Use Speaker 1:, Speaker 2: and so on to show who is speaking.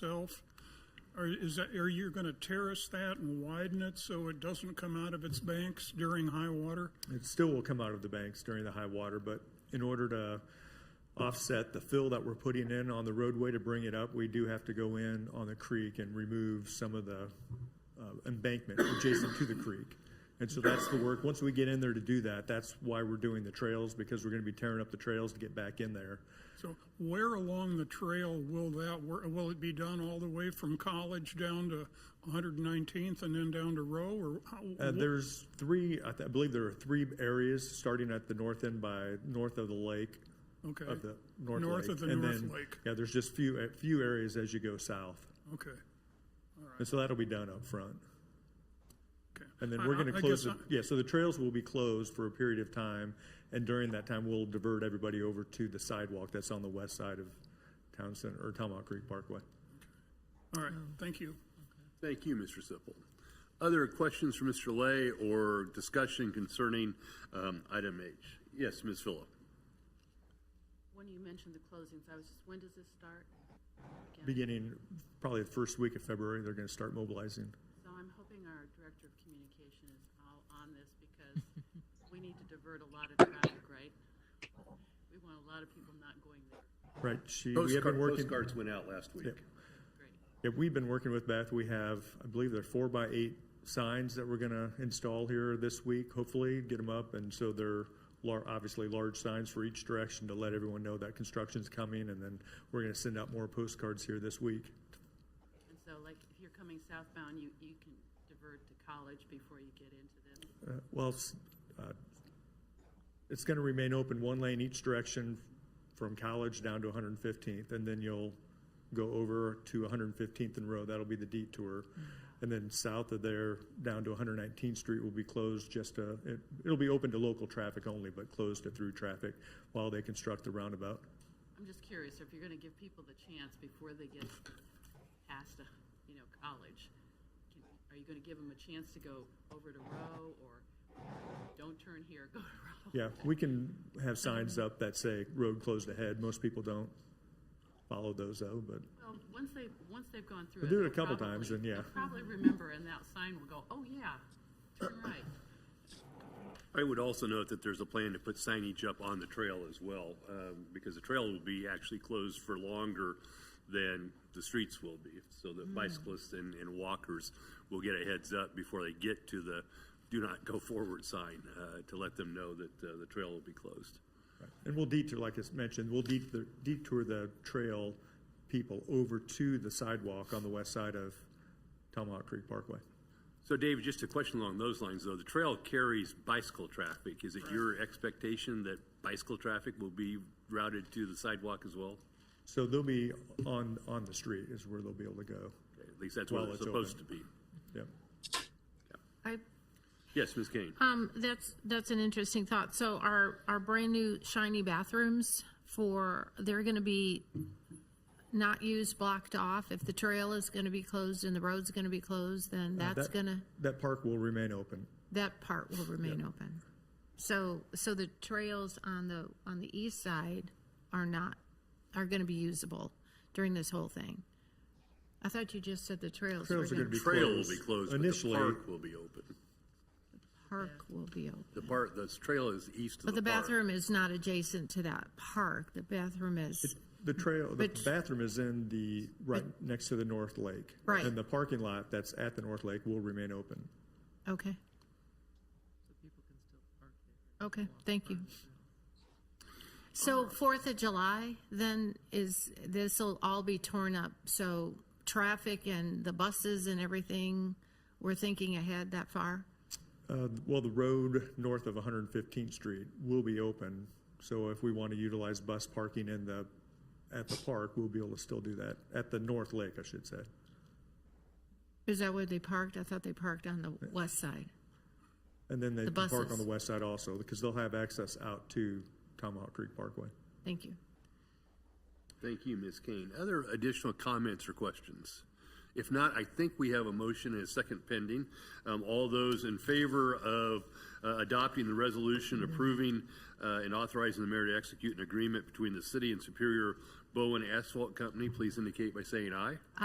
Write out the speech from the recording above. Speaker 1: itself? Or is that, are you going to terrace that and widen it so it doesn't come out of its banks during high water?
Speaker 2: It still will come out of the banks during the high water, but in order to offset the fill that we're putting in on the roadway to bring it up, we do have to go in on the creek and remove some of the uh, embankment adjacent to the creek. And so that's the work. Once we get in there to do that, that's why we're doing the trails, because we're going to be tearing up the trails to get back in there.
Speaker 1: So where along the trail will that, wor- will it be done all the way from College down to 119th and then down to Row? Or how-
Speaker 2: Uh, there's three, I, th- I believe there are three areas, starting at the north end by north of the lake,
Speaker 1: Okay.
Speaker 2: of the north lake.
Speaker 1: North of the
Speaker 2: and
Speaker 1: North
Speaker 2: then-
Speaker 1: Lake.
Speaker 2: Yeah, there's just few, a few areas as you go south.
Speaker 1: Okay,
Speaker 2: And so that'll be done up front.
Speaker 1: okay.
Speaker 2: And then
Speaker 1: I-
Speaker 2: we're
Speaker 1: I-
Speaker 2: going
Speaker 1: I
Speaker 2: to close,
Speaker 1: guess
Speaker 2: the- yeah, so the trails will be closed for a period of time. And during that time, we'll divert everybody over to the sidewalk that's on the west side of Town Center, or Tomahawk Creek Parkway.
Speaker 1: I- All right, thank you.
Speaker 3: Thank you, Mr. Sipple. Other questions for Mr. Lay or discussion concerning um, item H? Yes, Ms. Phillip.
Speaker 4: When you mentioned the closings, I was just, when does this start? Again,
Speaker 2: Beginning probably the first week of February, they're going to start mobilizing.
Speaker 4: So I'm hoping our director of communication is all on this because we need to divert a lot of traffic, right? We want a lot of people not going there.
Speaker 2: Right, she, we have
Speaker 3: Postcard-
Speaker 2: been working.
Speaker 3: Postcards went out last week.
Speaker 4: Great.
Speaker 2: Yeah, we've been working with Beth. We have, I believe they're four by eight signs that we're gonna install here this week, hopefully, get them up. And so they're lar- obviously large signs for each direction to let everyone know that construction's coming. And then we're gonna send out more postcards here this week.
Speaker 4: And so like if you're coming southbound, you, you can divert to college before you get into this.
Speaker 2: Uh, Well, s- uh, it's gonna remain open one lane each direction from College down to 115th. And then you'll go over to 115th and Row. That'll be the detour. And then south of there, down to 119th Street will be closed just to, it- it'll be open to local traffic only, but closed to through traffic while they construct the roundabout.
Speaker 4: I'm just curious, if you're gonna give people the chance before they get past, uh, you know, college, can- are you gonna give them a chance to go over to Row or don't turn here, go to Row?
Speaker 2: Yeah, we can have signs up that say road closed ahead. Most people don't follow those though, but
Speaker 4: Well, once they, once they've gone through it.
Speaker 2: We'll do it a
Speaker 4: they'll
Speaker 2: couple
Speaker 4: probably-
Speaker 2: times and, yeah.
Speaker 4: they'll Probably remember and that sign will go, oh, yeah, turn right.
Speaker 3: I would also note that there's a plan to put signage up on the trail as well, um, because the trail will be actually closed for longer than the streets will be. So
Speaker 2: Hmm.
Speaker 3: that bicyclists and, and walkers will get a heads up before they get to the do not go forward sign, uh, to let them know that, uh, the trail will be closed.
Speaker 2: And we'll detour, like I mentioned, we'll detour, detour the trail people over to the sidewalk on the west side of Tomahawk Creek Parkway.
Speaker 3: So Dave, just a question along those lines, though. The trail carries bicycle traffic. Is it your expectation that bicycle traffic will be routed to the sidewalk as well?
Speaker 2: So they'll be on, on the street is where they'll be able to go.
Speaker 3: At least that's what
Speaker 2: Well,
Speaker 3: it's
Speaker 2: it's
Speaker 3: supposed to
Speaker 2: open.
Speaker 3: be.
Speaker 2: Yep.
Speaker 5: I,
Speaker 3: Yes, Ms. Kane?
Speaker 5: um, that's, that's an interesting thought. So our, our brand new shiny bathrooms for, they're gonna be not used, blocked off. If the trail is gonna be closed and the road's gonna be closed, then that's
Speaker 2: Uh, That-
Speaker 5: gonna,
Speaker 2: That park will remain open.
Speaker 5: that part will remain open. So, so the trails on the, on the east side are not, are gonna be usable during this whole thing. I thought you just said the trails were
Speaker 2: Trails are
Speaker 5: gonna
Speaker 2: gonna be
Speaker 5: be,
Speaker 3: Trail will
Speaker 2: closed.
Speaker 3: be closed, but the
Speaker 2: Initially,
Speaker 3: park will be open.
Speaker 5: park will be open.
Speaker 3: The park, the trail is east of
Speaker 5: But
Speaker 3: the
Speaker 5: the
Speaker 3: park.
Speaker 5: bathroom is not adjacent to that park. The bathroom is,
Speaker 2: the trail, the
Speaker 5: But-
Speaker 2: bathroom is in the, right next to the North Lake.
Speaker 5: Right.
Speaker 2: And the parking lot that's at the North Lake will remain open.
Speaker 5: okay. Okay, thank you. So Fourth of July, then is, this'll all be torn up. So traffic and the buses and everything, we're thinking ahead that far?
Speaker 2: Uh, Well, the road north of 115th Street will be open, so if we want to utilize bus parking in the, at the park, we'll be able to still do that, at the North Lake, I should say.
Speaker 5: Is that where they parked? I thought they parked on the west side.
Speaker 2: And then they
Speaker 5: The
Speaker 2: can park on
Speaker 5: buses.
Speaker 2: the west side also, because they'll have access out to Tomahawk Creek Parkway.
Speaker 5: Thank you.
Speaker 3: Thank you, Ms. Kane. Other additional comments or questions? If not, I think we have a motion and a second pending. Um, All those in favor of uh, adopting the resolution approving uh, and authorizing the mayor to execute an agreement between the city and Superior Bowen Asphalt Company, please indicate by saying aye.